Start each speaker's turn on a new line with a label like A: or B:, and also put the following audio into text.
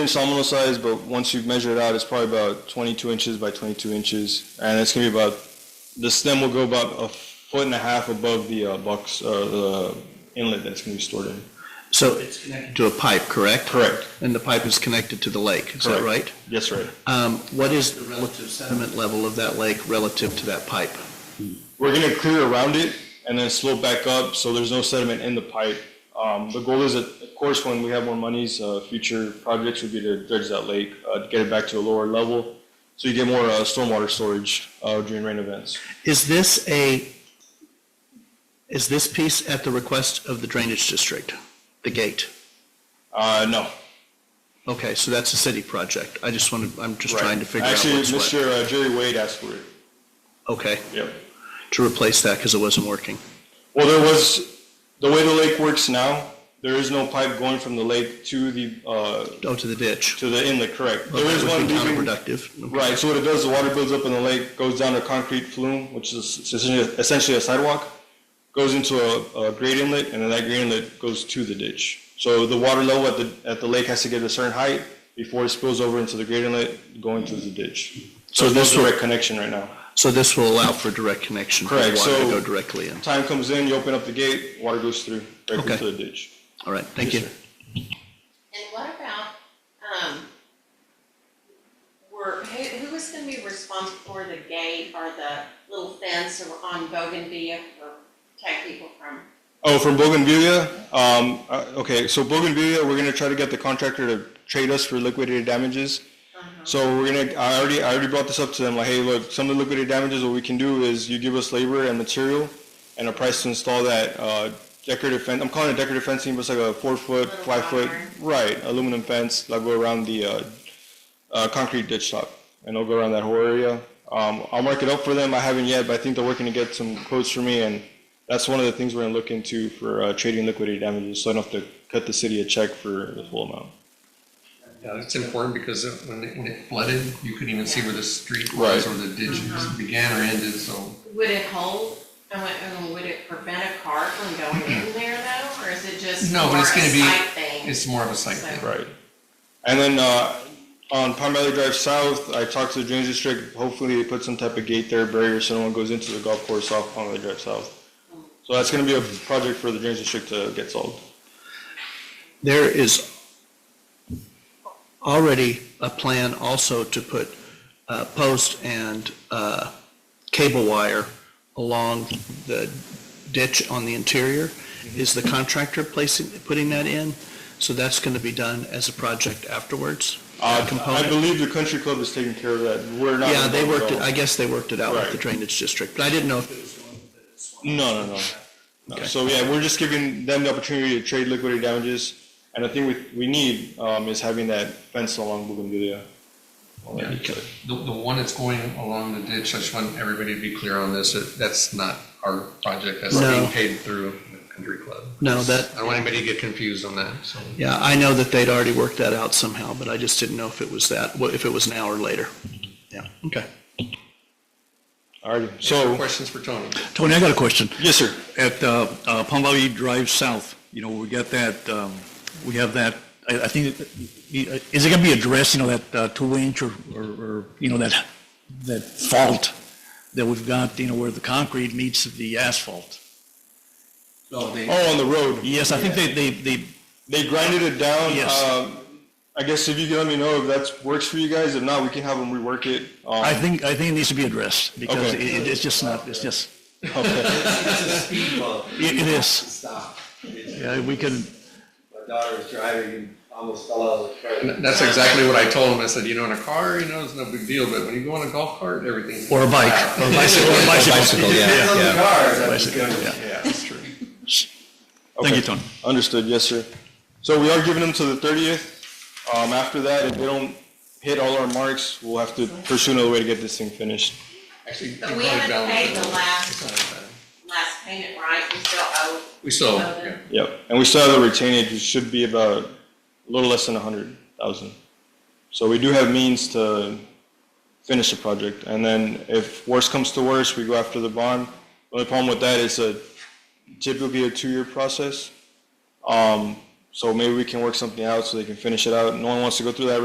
A: It's an nominal size, but once you measure it out, it's probably about 22 inches by 22 inches, and it's gonna be about the stem will go about a foot and a half above the uh, box uh, the inlet that's gonna be stored in.
B: So it's connected to a pipe, correct?
A: Correct.
B: And the pipe is connected to the lake, is that
A: Correct.
B: right?
A: Yes, right.
B: Um, What is the relative sediment level of that lake relative to that pipe?
A: We're gonna clear around it and then slope back up, so there's no sediment in the pipe. Um, the goal is that, of course, when we have more monies, uh, future projects would be to dredge that lake, uh, to get it back to a lower level, so you get more uh, stormwater storage uh, during rain events.
B: Is this a, is this piece at the request of the drainage district, the gate?
A: Uh, no.
B: Okay, so that's a city project. I just wanted, I'm just
A: right.
B: trying to figure out
A: Actually,
B: what's what.
A: Mr. uh, Jerry Wade asked for it.
B: Okay,
A: Yep.
B: to replace that because it wasn't working.
A: Well, there was the way the lake works now. There is no pipe going from the lake to the uh,
B: Oh, to the ditch.
A: to the inlet. Correct.
B: Well,
A: There is
B: That
A: one
B: would be
A: leaving.
B: counterproductive. Okay.
A: Right. So what it does, the water builds up in the lake, goes down a concrete flume, which is essentially essentially a sidewalk, goes into a, a great inlet, and then that great inlet goes to the ditch. So the water level at the at the lake has to get a certain height before it spills over into the great inlet, going to the ditch. So,
B: So
A: there's
B: this
A: no
B: will-
A: direct connection right now.
B: So this will allow for direct connection for the
A: Correct,
B: water to
A: so-
B: go directly in.
A: Time comes in, you open up the gate, water goes through directly
B: Okay.
A: to the ditch.
B: All right, thank
A: Yes,
B: you.
A: sir.
C: And what about, um, were, who, who is gonna be responsible for the gate or the little fence or on Bougainvillea or protect people from?
A: Oh, from Bougainvillea? Um, uh, okay, so Bougainvillea, we're gonna try to get the contractor to trade us for liquidated damages.
C: Uh-huh.
A: So we're gonna, I already, I already brought this up to them, like, hey, look, some of the liquidated damages, what we can do is you give us labor and material and a price to install that, uh, decorative fence, I'm calling it decorative fencing, but it's like a four foot,
C: Little
A: five foot,
C: wrought iron.
A: right, aluminum fence, that'll go around the, uh, uh, concrete ditch top, and it'll go around that whole area. Um, I'll mark it up for them, I haven't yet, but I think they're working to get some quotes for me, and that's one of the things we're gonna look into for, uh, trading liquidated damages, so I don't have to cut the city a check for the full amount.
D: Yeah, it's important because it- when it, when it flooded, you couldn't even see where the street
A: Right.
D: was or the ditch
C: Mm-hmm.
D: began or ended, so.
C: Would it hold, I went, um, would it prevent a car from going in there though, or is it just
D: No,
C: more
D: but
C: a
D: it's gonna be-
C: site thing?
D: It's more of a site thing.
A: Right. And then, uh, on Palm Valley Drive South, I talked to the drainage district, hopefully they put some type of gate there, barrier, so no one goes into the golf course off Palm Valley Drive South. So that's gonna be a project for the drainage district to get solved.
B: There is already a plan also to put uh, post and uh, cable wire along the ditch on the interior. Is the contractor placing, putting that in? So that's going to be done as a project afterwards?
A: Uh, I
B: Component?
A: believe the country club is taking care of that, we're not.
B: Yeah, they
A: involved
B: worked
A: at
B: it,
A: all.
B: I guess they worked it out with the
A: Right.
B: drainage district, but I didn't know if it was going with it. It's one-
A: No, no, no. no.
B: Okay.
A: So yeah, we're just giving them the opportunity to trade liquidated damages, and the thing we, we need, um, is having that fence along Bougainvillea. All that good stuff.
D: The, the one that's going along the ditch, I just want everybody to be clear on this, that- that's not our project, that's
B: No.
D: being paid through the country club.
B: No, that,
D: I don't want anybody to get confused on that, so.
B: Yeah, I know that they'd already worked that out somehow, but I just didn't know if it was that, what- if it was now or later. Yeah, okay.
A: Alrighty,
D: Any
A: so,
D: Questions for Tony?
E: Tony, I got a question.
A: yes, sir.
E: At uh, uh, Palm Valley Drive South, you know, we got that, um, we have that, I I think, uh, is it going to be addressed, you know, that uh, two inch or, or, or, you know, that, that fault that we've got, you know, where the concrete meets the asphalt?
A: Oh, on the road.
E: Yes, I think they, they, they,
A: They grinded it down.
E: Yes.
A: Um, I guess if you can let me know if that works for you guys. If not, we can have them rework it. Um,
E: I think, I think it needs to be addressed because it,
A: Okay.
E: it- it's just not, it's just,
A: okay.
F: It's a speed bump.
E: it it is.
F: Stop.
E: Yeah, we can,
F: My daughter was driving and almost fell out of the
D: And
F: car.
D: That's exactly what I told him. I said, you know, in a car, you know, it's no big deal, but when you go on a golf cart, everything's.
E: or a bike, or a bicycle, or a bicycle.
F: It's on the cars, I'm just
E: Bicycle,
F: gonna-
E: yeah.
D: That's true.
E: Thank you, Tony.
A: Understood. Yes, sir. So we are giving them to the 30th. Um, after that, if they don't hit all our marks, we'll have to pursue another way to get this thing finished.
D: Actually, you
C: But we
D: probably
C: haven't
D: balanced
C: paid
D: it
C: the
D: out.
C: last,
D: It's not that bad.
C: last payment, right? We still owe,
D: We still,
C: Oh,
D: yeah.
A: Yep. And we still have the retainage, which should be about a little less than 100,000. So we do have means to finish the project. And then if worse comes to worse, we go after the bond. The only problem with that is a typically a two-year process. Um, So maybe we can work something out so they can finish it out. No one wants to go through that